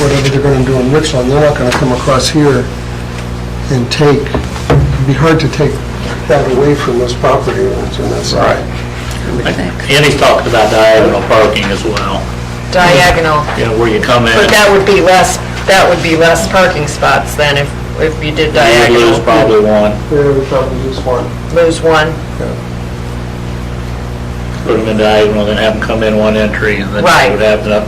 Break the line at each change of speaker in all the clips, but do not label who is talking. whatever they're gonna do in Richland, they're not gonna come across here and take, it'd be hard to take that away from those property owners, and that's...
Andy's talking about diagonal parking as well,
diagonal,
you know, where you come in.
but that would be less, that would be less parking spots than if, if you did
You
diagonal.
lose probably one,
Yeah, we probably just want...
Lose one,
put them in diagonal, then have them come in one entry, and then
Right.
you would have enough,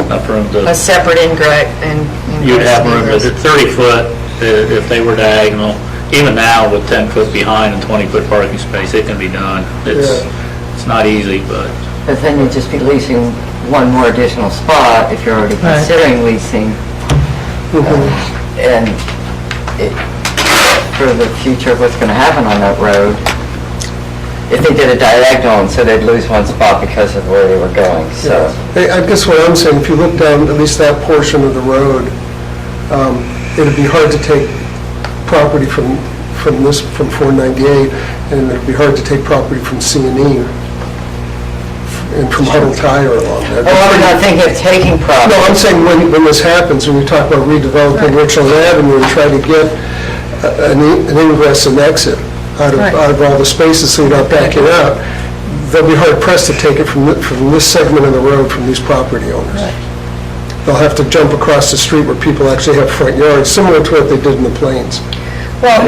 enough room to,
a separate ingress and.
you'd have room,
ingress.
to- 30 foot, i- if they were diagonal, even now with 10 foot behind and 20 foot parking space, it can be done. It's, it's not easy, but
But then you'd just be leasing one more additional spot if you're already considering leasing.
Mm-hmm.
And it- for the future, what's going to happen on that road? If they did a diagonal, and so they'd lose one spot because of where they were going, so.
Hey, I guess what I'm saying, if you look down at least that portion of the road, um, it'd be hard to take property from, from this, from 498, and it'd be hard to take property from C and E and from Huddle Tire along that.
Oh, I'm not thinking of taking
No, I'm
property.
saying when, when this happens, when we talk about redeveloping Richland Avenue and try to get a- an e- an ingress and exit out of, out of all the spaces so you're not backing out, they'll be hard pressed to take it from, thi- from this segment of the road from these property owners. They'll have to jump across the street where people actually have front yards, similar to what they did in the plains.
Well,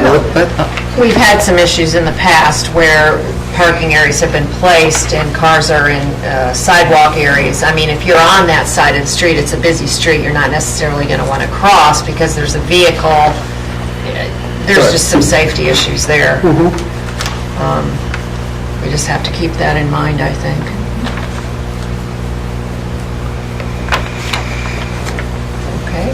we've had some issues in the past where parking areas have been placed and cars are in uh, sidewalk areas. I mean, if you're on that side of the street, it's a busy street, you're not necessarily going to want to cross because there's a vehicle. There's just some safety issues there. Um, We just have to keep that in mind, I think. Okay.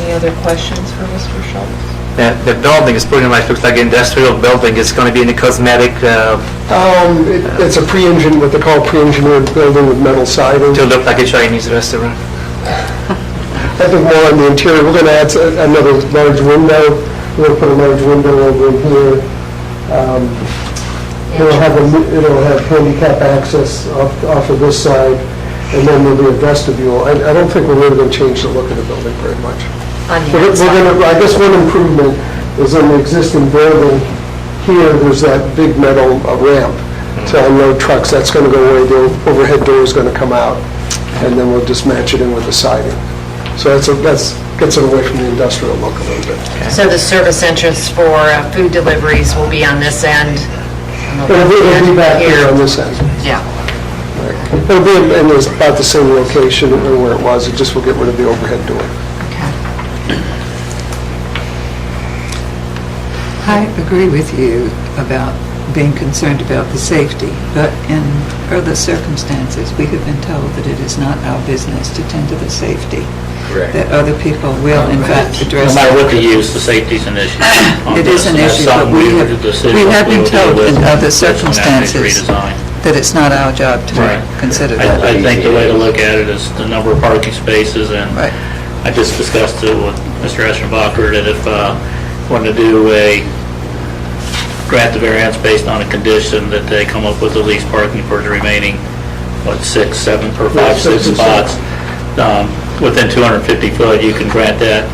Any other questions for Mr. Schultz?
The the building is pretty much looks like industrial building. It's going to be in a cosmetic uh,
Um, it- it's a pre-engine, what they call pre-engineered building with metal siding.
to look like a Chinese restaurant.
I think more on the interior, we're going to add s- another large window, we're going to put a large window over in here. Um, It'll have, a mo- it'll have handicap access off off of this side, and then there'll be a vestibule. I I don't think we're really going to change the look of the building very much.
on the
We're
outside.
going to, I guess one improvement is in the existing building, here, there's that big metal uh, ramp to unload trucks, that's going to go away, the overhead door is going to come out, and then we'll just match it in with the siding. So that's, a- that's, gets it away from the industrial look a little bit.
So the service entrance for uh, food deliveries will be on this end? on the
But
left
it'll be
end
back here on this end.
Yeah,
It'll be in in about the same location where it was, it just will get rid of the overhead door.
okay.
I agree with you about being concerned about the safety, but in other circumstances, we have been told that it is not our business to tend to the safety.
Correct.
That other people will in fact
no
address
matter what
it.
the use, the safety's an issue. on
It
this,
is an
and that's
issue, but
something
we
were-
have-
the city
we have been
will deal
told
with
in other
this when that next
circumstances.
redesign.
That it's not our job
Right.
to consider that.
I I think the way to look at it is the number of parking spaces, and
Right.
I just discussed it with Mr. Eschenbacher, that if uh wanted to do a, grant the variance based on a condition that they come up with the least parking for the remaining, what, six, seven, or five, six spots, um, within 250 foot, you can grant that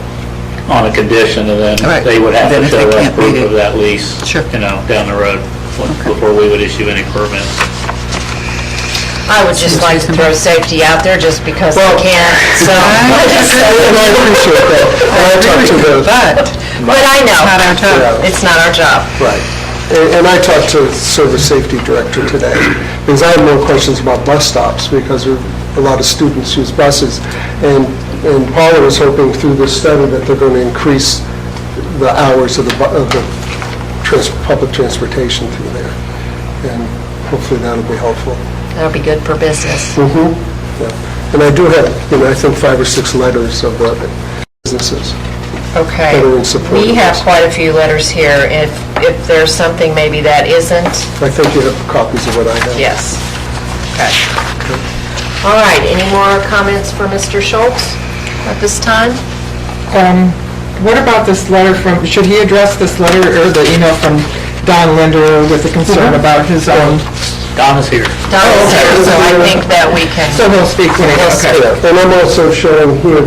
on a condition, and then
Right.
they would have
Then
to
if
show
they
us
can't meet
proof
it.
of that lease,
Sure.
you know, down the road, before we would issue any permits.
I would just like to throw safety out there just because I can, so.
And I appreciate that. And I talked to the,
But
But I know.
Not our job.
It's not our job.
Right. And and I talked to the Service Safety Director today, because I have no questions about bus stops, because there are a lot of students use buses. And and Paula was hoping through this study that they're going to increase the hours of the, bu- of the trans- public transportation through there. And hopefully that'll be helpful.
That'll be good for business.
Yeah. And I do have, you know, I think five or six letters of the businesses.
Okay.
Better in support
We
of
have
this.
quite a few letters here. If, if there's something maybe that isn't,
I think you have copies of what I have.
Yes. Okay. All right, any more comments for Mr. Schultz at this time?
Um, What about this letter from, should he address this letter or the email from Don Linder with the concern about his own
Don is here.
Don's here, so I think that we can.
So he'll speak to me, okay.
And I'm also showing here